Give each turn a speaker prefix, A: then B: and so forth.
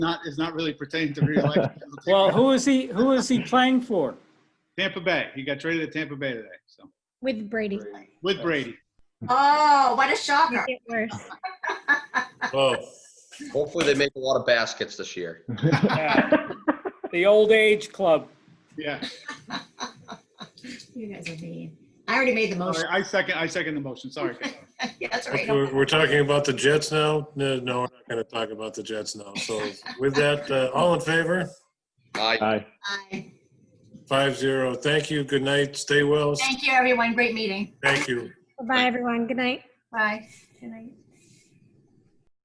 A: not, is not really pertaining to reelection. It'll take
B: Well, who is he, who is he playing for?
A: Tampa Bay, he got traded to Tampa Bay today, so,
C: with Brady.
A: with Brady.
D: Oh, what a shocker.
C: Make it worse.
E: Oh,
F: Hopefully, they make a lot of baskets this year.
B: The old age club.
A: Yeah,
D: You guys are mean. I already made the
A: Sorry,
D: motion.
A: I second, I second the motion, sorry.
D: Yeah, that's all right.
E: We're, we're talking about the Jets now? No, no, we're not going to talk about the Jets now. So with that, uh, all in favor?
F: I,
G: Aye.
D: Aye.
E: Five zero. Thank you. Good night. Stay well.
D: Thank you, everyone. Great meeting.
E: Thank you.
C: Bye, everyone. Good night.
D: Bye. Good night.